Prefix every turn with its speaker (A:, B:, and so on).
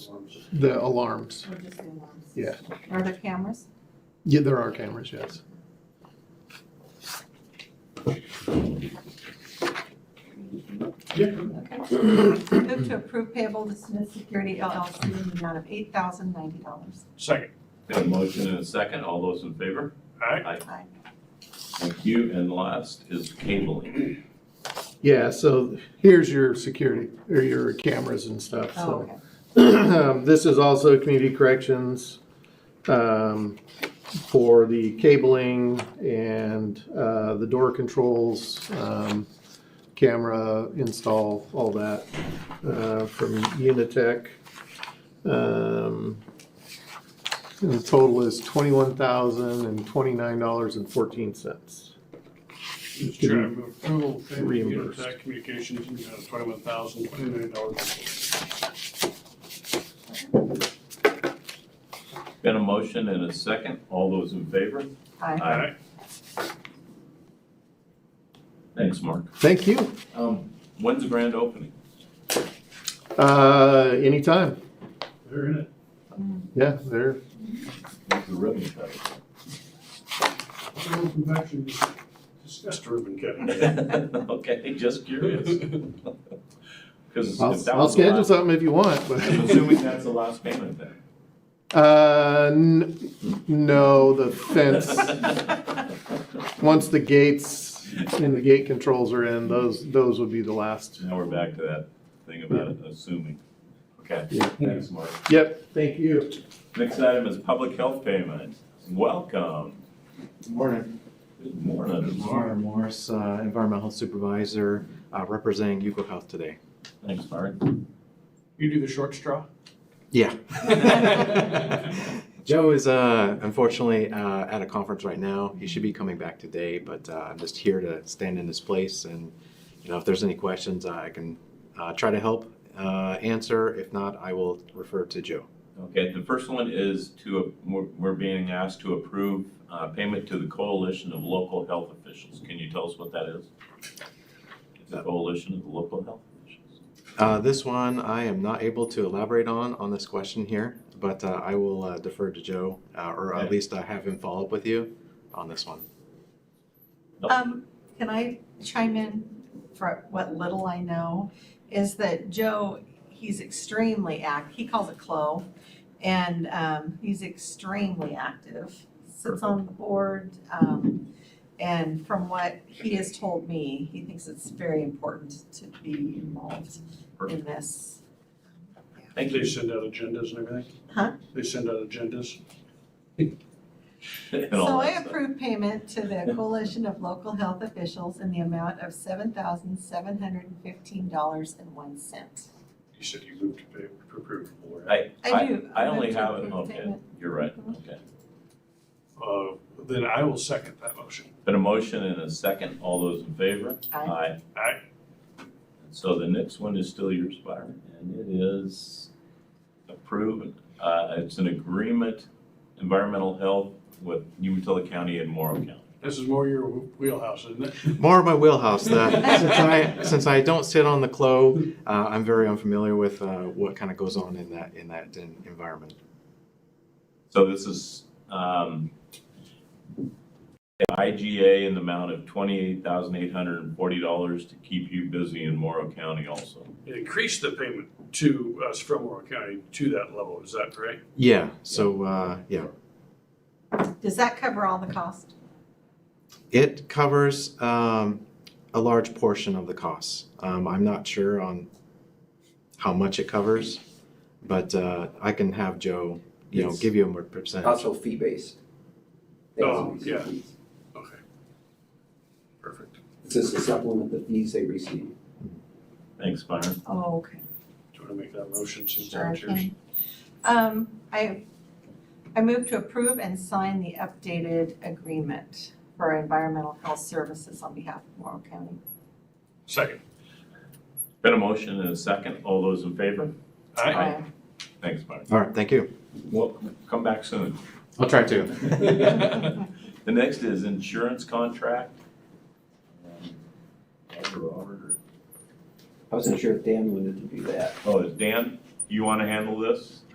A: The alarms.
B: Or just the alarms?
A: Yeah.
B: Are there cameras?
A: Yeah, there are cameras, yes.
B: Okay. Move to approve payable to Smith Security LLC in the amount of eight thousand ninety dollars.
C: Second.
D: Have a motion and a second, all those in favor?
C: Aye.
B: Aye.
D: Thank you, and last is cabling.
A: Yeah, so here's your security, or your cameras and stuff,
B: Oh,
A: so.
B: okay.
A: Um, This is also community corrections um, for the cabling and uh, the door controls, um, camera install, all that uh, from Unitech. Um, And the total is twenty-one thousand and twenty-nine dollars and fourteen cents.
E: Mr. Chair, I move approval of payment to
A: Reimbursed.
E: Unitech Communications in the amount of twenty-one thousand, twenty-nine dollars.
D: Been a motion and a second, all those in favor?
B: Aye.
D: Aye. Thanks, Mark.
A: Thank you.
D: Um, when's the grand opening?
A: Uh, Anytime.
E: They're in it.
A: Yeah, there.
D: The ribbon cutting.
E: Oral confection, discussed ribbon cutting.
D: Okay, just curious. Because
A: I'll
D: if that
A: I'll
D: was the
A: schedule
D: last,
A: something if you want. but-
D: I'm assuming that's the last payment then.
A: Uh, n- no, the fence. Once the gates and the gate controls are in, those those would be the last.
D: Now we're back to that thing about it, assuming. Okay,
A: Yeah.
D: thanks, Mark.
A: Yep. Thank you.
D: Next item is public health payment. Welcome.
F: Morning,
D: Good morning.
F: Mara Morris, uh, Environmental Supervisor, uh, representing Yuko Health today.
D: Thanks, Mark.
E: You do the short straw?
F: Yeah. Joe is uh, unfortunately uh, at a conference right now. He should be coming back today, but uh, I'm just here to stand in his place. And you know, if there's any questions, I can uh, try to help uh, answer. If not, I will refer to Joe.
D: Okay, the first one is to, we're we're being asked to approve uh, payment to the Coalition of Local Health Officials. Can you tell us what that is? It's a coalition of local health officials.
F: Uh, this one I am not able to elaborate on on this question here, but uh, I will uh, defer to Joe, uh, or
D: Okay.
F: at least uh, have him follow up with you on this one.
B: Um, can I chime in for what little I know? Is that Joe, he's extremely act, he calls it CLO, and, um, he's extremely active. Sits on the board, um, and from what he has told me, he thinks it's very important to be involved in
D: Perfect.
B: this.
D: Thank
E: They
D: you.
E: send out agendas and everything?
B: Huh?
E: They send out agendas.
D: And all
B: So I
D: that stuff.
B: approve payment to the Coalition of Local Health Officials in the amount of seven thousand seven hundred and fifteen dollars and one cent.
E: You said you moved to pay, to approve. or-
D: I,
B: I do.
D: I only
B: move to
D: have it,
B: approve
D: okay,
B: payment.
D: you're right, okay.
E: Uh, Then I will second that motion.
D: Been a motion and a second, all those in favor?
B: Aye.
E: Aye.
D: So the next one is still yours, Byron, and it is approved, uh, it's an agreement, environmental health with Umatilla County and Morrow County.
E: This is more your wheelhouse, isn't it?
F: More of my wheelhouse. That since I since I don't sit on the CLO, uh, I'm very unfamiliar with uh, what kind of goes on in that in that en- environment.
D: So this is, um, IGA in the amount of twenty-eight thousand eight hundred and forty dollars to keep you busy in Morrow County also.
E: Increase the payment to us from Oral County to that level, is that correct?
F: Yeah. So uh, yeah,
B: Does that cover all the cost?
F: it covers um, a large portion of the costs. Um, I'm not sure on how much it covers, but uh, I can have Joe, you know,
G: It's-
F: give you a more percentage.
G: Also fee-based.
E: Oh, yeah. Okay. Perfect.
G: It's just to supplement the fees they receive.
D: Thanks, Byron.
B: Oh, okay.
E: Do you want to make that motion,
B: Sure,
E: Suzanne?
B: I
E: Cheers.
B: can. Um, I, I move to approve and sign the updated agreement for environmental health services on behalf of Morrow County.
E: Second.
D: Been a motion and a second, all those in favor?
E: Aye.
B: Aye.
D: Thanks, Byron.
F: All right. Thank you.
D: Well, come back soon.
F: I'll try to.
D: The next is insurance contract. Um, Robert or-
G: I wasn't sure if Dan wanted to do that.
D: Oh, is Dan? you want to handle this?